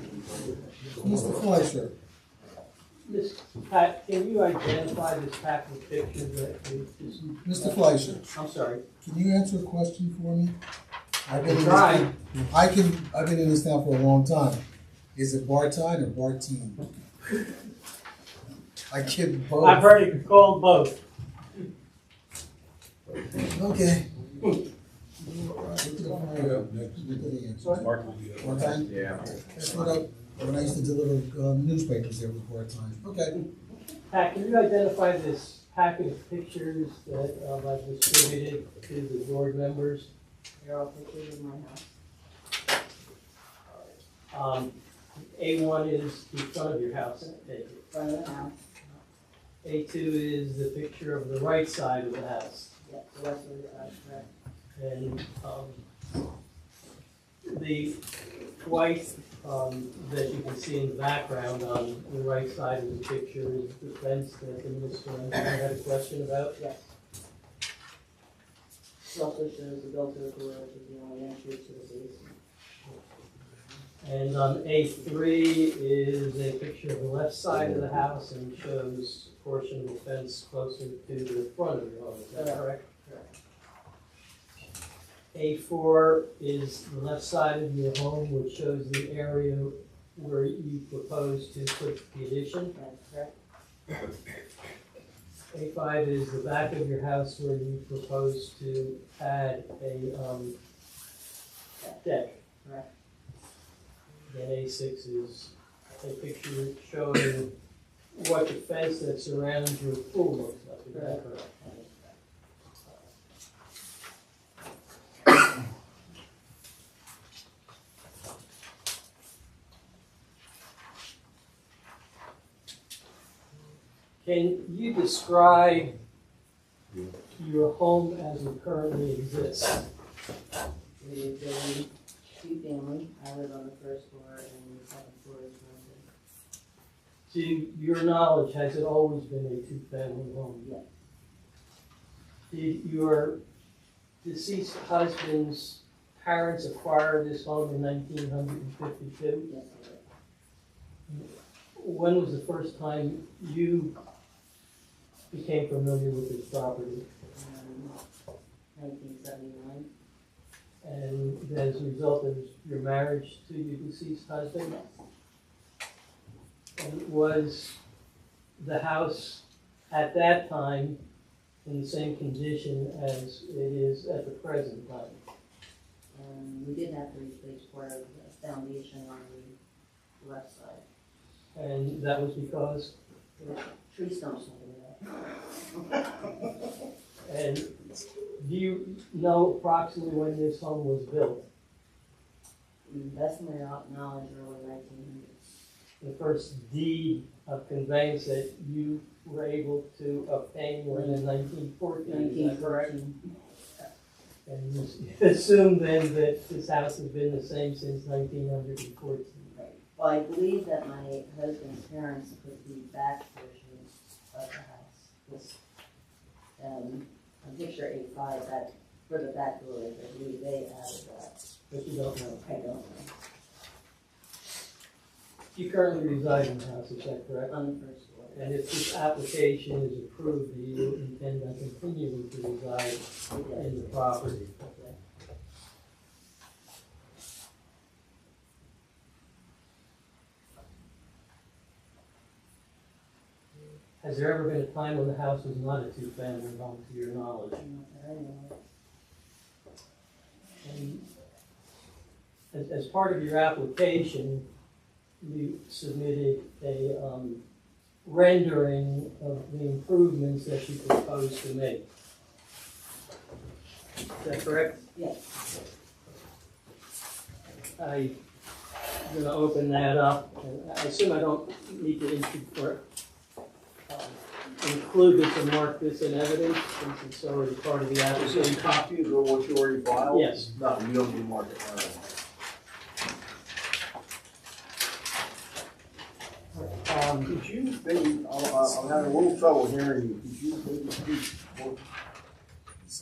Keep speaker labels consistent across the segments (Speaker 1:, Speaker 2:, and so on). Speaker 1: Mr. Fleischer,
Speaker 2: Miss Pat, can you identify this packet picture that we just,
Speaker 1: Mr. Fleischer,
Speaker 2: I'm sorry,
Speaker 1: can you answer a question for me? I've been in this-
Speaker 2: try.
Speaker 1: I can, I've been in this town for a long time. Is it Bartine or Bartine? I get both.
Speaker 2: I've heard it called both.
Speaker 1: Okay. Look at the fire up next. Look at the answer.
Speaker 3: Mark will be up.
Speaker 1: Bartine?
Speaker 3: Yeah.
Speaker 1: That's what I, when I used to deliver uh, newspapers there was Bartine. Okay.
Speaker 2: Pat, can you identify this packet of pictures that um, I've distributed to the board members?
Speaker 4: They're all pictures in my house.
Speaker 2: Um, A one is the front of your house, I take it.
Speaker 4: Front of the house,
Speaker 2: A two is the picture of the right side of the house.
Speaker 4: yeah, the rest of the, uh, correct.
Speaker 2: And, um, the white, um, that you can see in the background on the right side of the picture is the fence that the minister had a question about.
Speaker 4: It also shows the built-in garage is the only entry to the basement.
Speaker 2: And on A three is a picture of the left side of the house and shows a portion of the fence closer to the front of the home, is that correct?
Speaker 4: Correct.
Speaker 2: A four is the left side of your home, which shows the area where you propose to put the addition.
Speaker 4: That's correct.
Speaker 2: A five is the back of your house where you propose to add a, um, deck.
Speaker 4: Correct.
Speaker 2: Then A six is a picture showing what the fence that surrounds your pool looks like, is that correct? Can you describe your home as it currently exists?
Speaker 4: We are doing two-family, I live on the first floor and the second floor is rented.
Speaker 2: To your knowledge, has it always been a two-family home?
Speaker 4: Yes.
Speaker 2: Did your deceased husband's parents acquire this home in nineteen hundred and fifty-two?
Speaker 4: Yes, it is.
Speaker 2: When was the first time you became familiar with this property?
Speaker 4: Um, Nineteen seventy-nine,
Speaker 2: And as a result of your marriage to your deceased husband? And was the house at that time in the same condition as it is at the present time?
Speaker 4: and we did have to replace part of the foundation on the left side.
Speaker 2: And that was because,
Speaker 4: Tree stumps over there.
Speaker 2: and do you know approximately when this home was built?
Speaker 4: That's my knowledge, early nineteen hundreds.
Speaker 2: The first deed of conveyance that you were able to obtain was in nineteen fourteen, is
Speaker 4: Nineteen
Speaker 2: that correct?
Speaker 4: fourteen.
Speaker 2: And you assume then that this house has been the same since nineteen hundred and fourteen?
Speaker 4: Well, I believe that my husband's parents put the back portion of the house, this, um, on picture eight five, that, for the back door, I believe they added that.
Speaker 2: But you don't know.
Speaker 4: I don't know,
Speaker 2: You currently reside in the house, is that correct?
Speaker 4: on the first floor,
Speaker 2: And if this application is approved, do you intend on continuing to reside
Speaker 4: we did.
Speaker 2: in the property? Has there ever been a time when the house was not a two-family home, to your knowledge?
Speaker 4: Not that I know of.
Speaker 2: And As, as part of your application, you submitted a, um, rendering of the improvements that you propose to make. Is that correct?
Speaker 4: Yes,
Speaker 2: I'm gonna open that up, and I assume I don't need to intro- or, um, include this and mark this in evidence, since it's already part of the
Speaker 5: Is there any
Speaker 2: application.
Speaker 5: copies or what you already filed?
Speaker 2: Yes.
Speaker 5: No, you don't need to mark it. All right.
Speaker 2: Um,
Speaker 5: Could you maybe, I'm, I'm having a little trouble hearing you. Could you maybe speak more?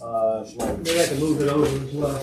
Speaker 5: Uh, like
Speaker 2: Maybe I can move it over as well.